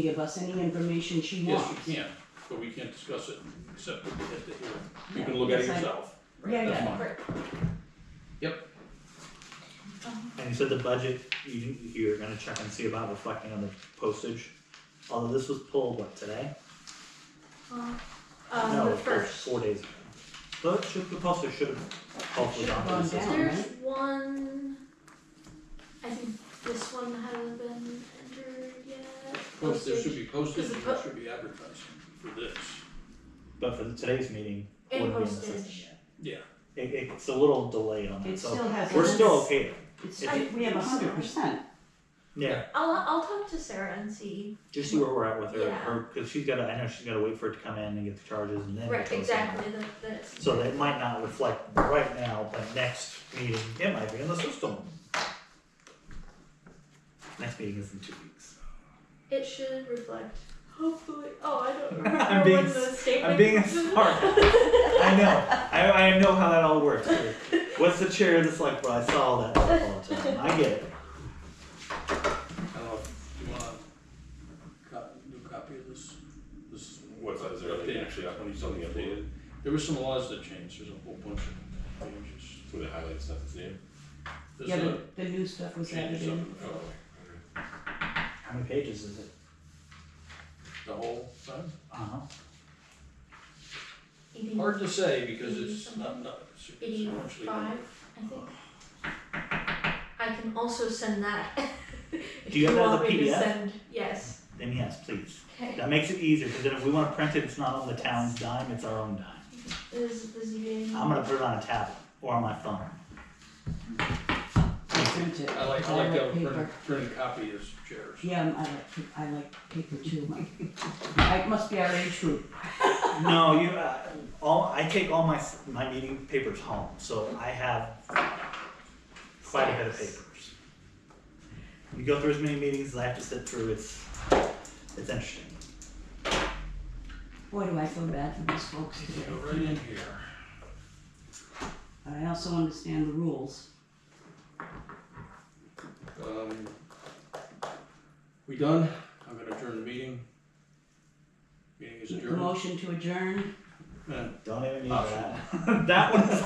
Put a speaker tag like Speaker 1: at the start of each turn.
Speaker 1: can give us any information she wants.
Speaker 2: Yes, you can, but we can't discuss it except at the hearing. You can look at it
Speaker 1: Yes, I-
Speaker 2: yourself.
Speaker 1: Yeah,
Speaker 2: That's
Speaker 1: yeah,
Speaker 2: mine.
Speaker 3: And you said the budget, you, you're gonna check and see about reflecting on the postage, although this was pulled, what, today?
Speaker 4: Um,
Speaker 3: No,
Speaker 4: the
Speaker 3: it was pulled
Speaker 4: first.
Speaker 3: four days ago. But should, the postage should have hopefully
Speaker 1: Should've
Speaker 3: gone through the
Speaker 1: gone
Speaker 3: system.
Speaker 1: down.
Speaker 4: There's one, I think this one hasn't been entered yet.
Speaker 2: Post, there should
Speaker 4: Postage.
Speaker 2: be postage,
Speaker 4: Is it
Speaker 2: and there
Speaker 4: po-
Speaker 2: should be advertising for this.
Speaker 3: But for the- today's meeting, it
Speaker 4: And
Speaker 3: wouldn't be in the
Speaker 4: postage.
Speaker 3: system yet.
Speaker 2: Yeah,
Speaker 3: It, it's a little delayed on
Speaker 1: It
Speaker 3: that,
Speaker 1: still
Speaker 3: so
Speaker 1: has.
Speaker 3: we're
Speaker 1: a-
Speaker 3: still okay,
Speaker 1: It's,
Speaker 4: I-
Speaker 1: we have a hundred percent.
Speaker 3: yeah,
Speaker 4: I'll, I'll talk to Sarah and see.
Speaker 3: just see where we're at with her,
Speaker 4: Yeah.
Speaker 3: her, cause she's gotta, I know she's gotta wait for it to come in and get the charges and then.
Speaker 4: Right,
Speaker 3: post it.
Speaker 4: exactly, that, that's.
Speaker 3: So that might not reflect right now, but next meeting, it might be in the system. Next meeting is in two weeks.
Speaker 4: It should reflect, hopefully, oh, I don't
Speaker 3: I'm
Speaker 4: remember
Speaker 3: being
Speaker 4: when the
Speaker 3: s-
Speaker 4: statement.
Speaker 3: I'm being a smart. I know. I, I know how that all works. What's the chair of the select board? I saw all that stuff all the time. I get it.
Speaker 2: I don't know, if- do you wanna co- do a copy of this? This is
Speaker 5: What's that, is there anything actually up, something updated,
Speaker 2: There were some laws that changed, there's a whole bunch of changes.
Speaker 5: so they highlight stuff that's new?
Speaker 2: There's
Speaker 1: Yeah,
Speaker 2: a
Speaker 1: the, the new stuff was added
Speaker 2: changes up in
Speaker 1: in.
Speaker 2: the code,
Speaker 3: How many pages is it?
Speaker 2: the whole thing.
Speaker 3: Uh-huh.
Speaker 4: Eighty-
Speaker 2: Hard to say because it's not, not. it's essentially-
Speaker 4: Eighty-five, I think. I can also send that. If
Speaker 3: Do you have that as a
Speaker 4: want me to
Speaker 3: PDF?
Speaker 4: send- Yes,
Speaker 3: Then yes, please.
Speaker 4: okay.
Speaker 3: That makes it easier because then if we want to print it, it's not on the town's dime, it's our own dime.
Speaker 4: Is the ZBA?
Speaker 3: I'm gonna put it on a tablet or on my phone.
Speaker 1: Print it.
Speaker 2: I like, I like to have a
Speaker 1: paper.
Speaker 2: printed, printed copy as chairs.
Speaker 1: Yeah, I'm- I like, pa- I like paper too. My- I, it must be our age group.
Speaker 3: No, you, uh, all, I take all my, s- my meeting papers home, so I have quite a bit of papers. You go through as many meetings as I have to sit through, it's, it's interesting.
Speaker 1: Boy, do I feel bad for these folks today.
Speaker 2: Go right in here.
Speaker 1: But I also understand the rules.
Speaker 2: Um, we done, I'm gonna adjourn the meeting. Meeting is
Speaker 1: The
Speaker 2: adjourned.
Speaker 1: motion to adjourn.
Speaker 2: And
Speaker 3: Don't even need
Speaker 2: Optional.
Speaker 3: that. That one is